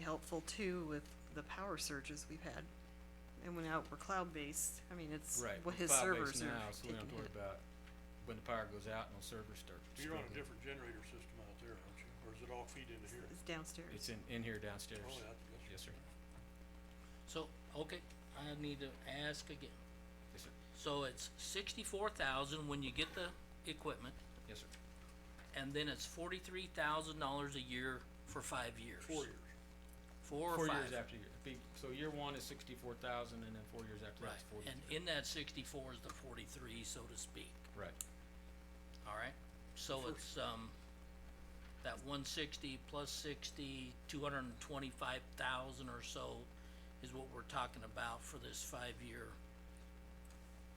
helpful too with the power surges we've had. And when out, we're cloud-based, I mean, it's, Right, what we're his servers cloud-based are now, so we taking don't have to worry hit. about when the power goes out and the servers start. You're on a struggling. different generator system out there, aren't you? Or is it all feed into here? It's downstairs. It's in, in here downstairs. Oh, yeah, that's- Yes, sir. So, okay, I need to ask again. Yes, sir. So it's sixty-four thousand when you get the equipment, Yes, sir. and then it's forty-three thousand dollars a year for five years. Four years. Four or Four five. years after year, be- so year one is sixty-four thousand and then four years after Right, that's forty. and in that sixty-four is the forty-three, so to speak, Right, alright? So it's, um, that one sixty plus sixty, two hundred and twenty-five thousand or so is what we're talking about for this five-year.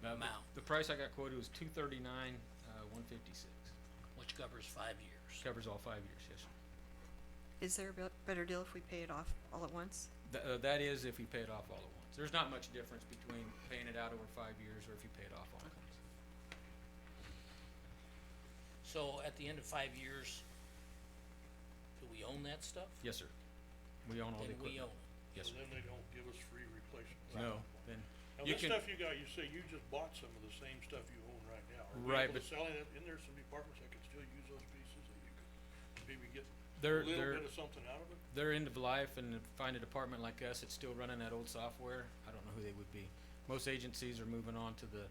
now, the, Amount. the price I got quoted was two thirty-nine, uh, one fifty-six, which covers five years. covers all five years, yes, sir. Is there a bet- better deal if we pay it off all at once? Th- uh, that is if you pay it off all at once. There's not much difference between paying it out over five years or if you pay it off all at once. So at the end of five years, do we own that stuff? Yes, sir. We own all the Then we own equipment. it. Yes, So sir. then they don't give us free replacements. No, then Now, you this can, stuff you got, you say you just bought some of the same stuff you own right now. Are we Right, able to but- sell it? Isn't there some departments that could still use those pieces that you could maybe get they're, a they're. little bit of something out of it? they're end of life and if find a department like us that's still running that old software, I don't know who they would be. Most agencies are moving on to the,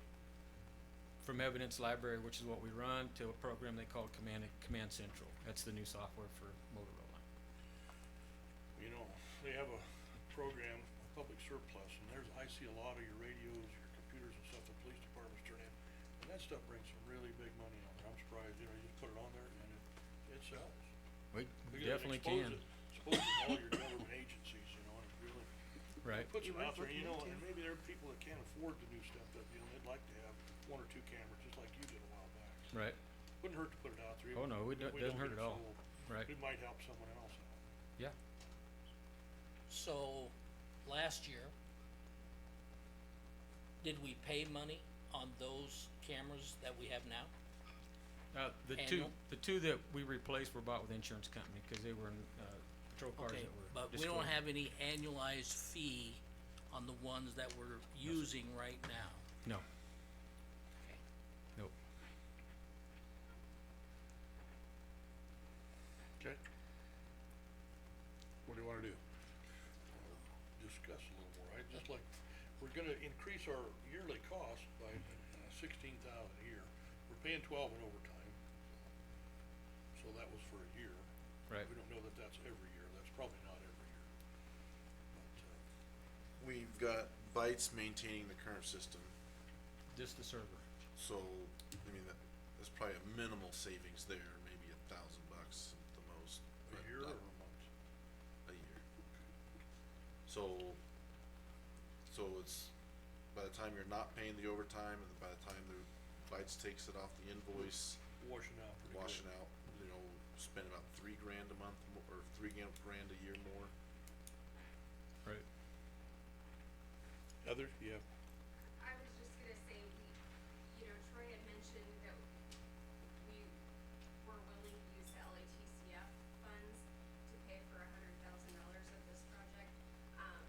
from evidence library, which is what we run, to a program they call Command, Command Central. That's the new software for Motorola. You know, they have a program, a public surplus, and there's, I see a lot of your radios, your computers and stuff the police departments turn in. And that stuff brings some really big money on there. I'm surprised, you know, you just put it on there and it, it sells. We Because it definitely can, exposes- exposes all your government agencies, you know, and it really right? puts Be them worth out there, and you know, looking and into. maybe there are people that can't afford the new stuff that, you know, they'd like to have one or two cameras, just like you did a while back. Right, Wouldn't hurt to put it out there. Oh, even no, it if don't- we doesn't don't hurt at get all. sold. right, It might help someone else out. yeah, So, last year, did we pay money on those cameras that we have now? uh, the two, Annual? the two that we replaced were bought with insurance company, cause they were in, uh, patrol cars that Okay, were but destroyed. we don't have any annualized fee on the ones that we're using right now. No, Okay. nope. Okay. What do you wanna do? Discuss a little more, I just like, we're gonna increase our yearly cost by sixteen thousand a year. We're paying twelve in overtime. So that was for a year. Right. We don't know that that's every year, that's probably not every year. But, uh, We've got Bytes maintaining the current system, Just the server, so, I mean, that, there's probably a minimal savings there, maybe a thousand bucks at the most. a but year not or a month? A year. So, so it's, by the time you're not paying the overtime, and by the time the Bytes takes it off the invoice, Washing out pretty good. washing out, you know, spend about three grand a month, mo- or three grand, grand a year more. right, Heather, you have I was just gonna say, we, you know, Troy had mentioned that we were willing to use the LATCF funds to pay for a hundred thousand dollars of this project. Um,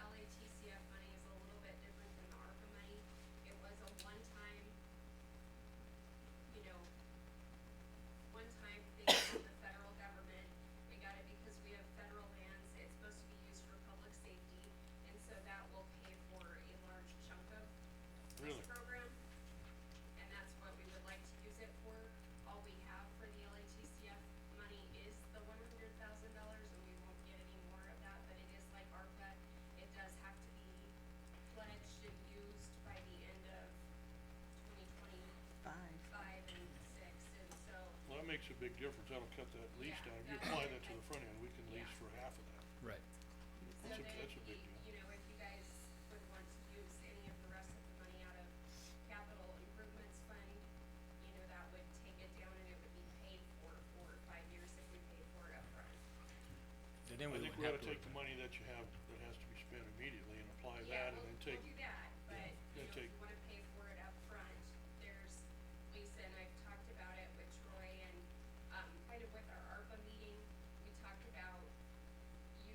LATCF money is a little bit different than the ARPA money. It was a one-time, you know, one-time thing from the federal government. We got it because we have federal lands, it's supposed to be used for public safety, and so that will pay for a large chunk of this Really? program. And that's what we would like to use it for. All we have for the LATCF money is the one hundred thousand dollars, and we won't get any more of that, but it is like ARPA. It does have to be pledged and used by the end of twenty twenty-five Five. and six, and so Well, that makes a big difference, that'll cut that lease Yeah, down, if you that's- apply that to the front end, we can lease Yeah. for half of that. right. So That's a- that's then if a you, big deal. you know, if you guys would want to use any of the rest of the money out of capital improvements fund, you know, that would take it down and it would be paid for four or five years if we paid for it upfront. Then we I wouldn't think we have ought to worry about it. take the money that you have, that has to be spent immediately and apply Yeah, that and we'll- then take We'll do that, um,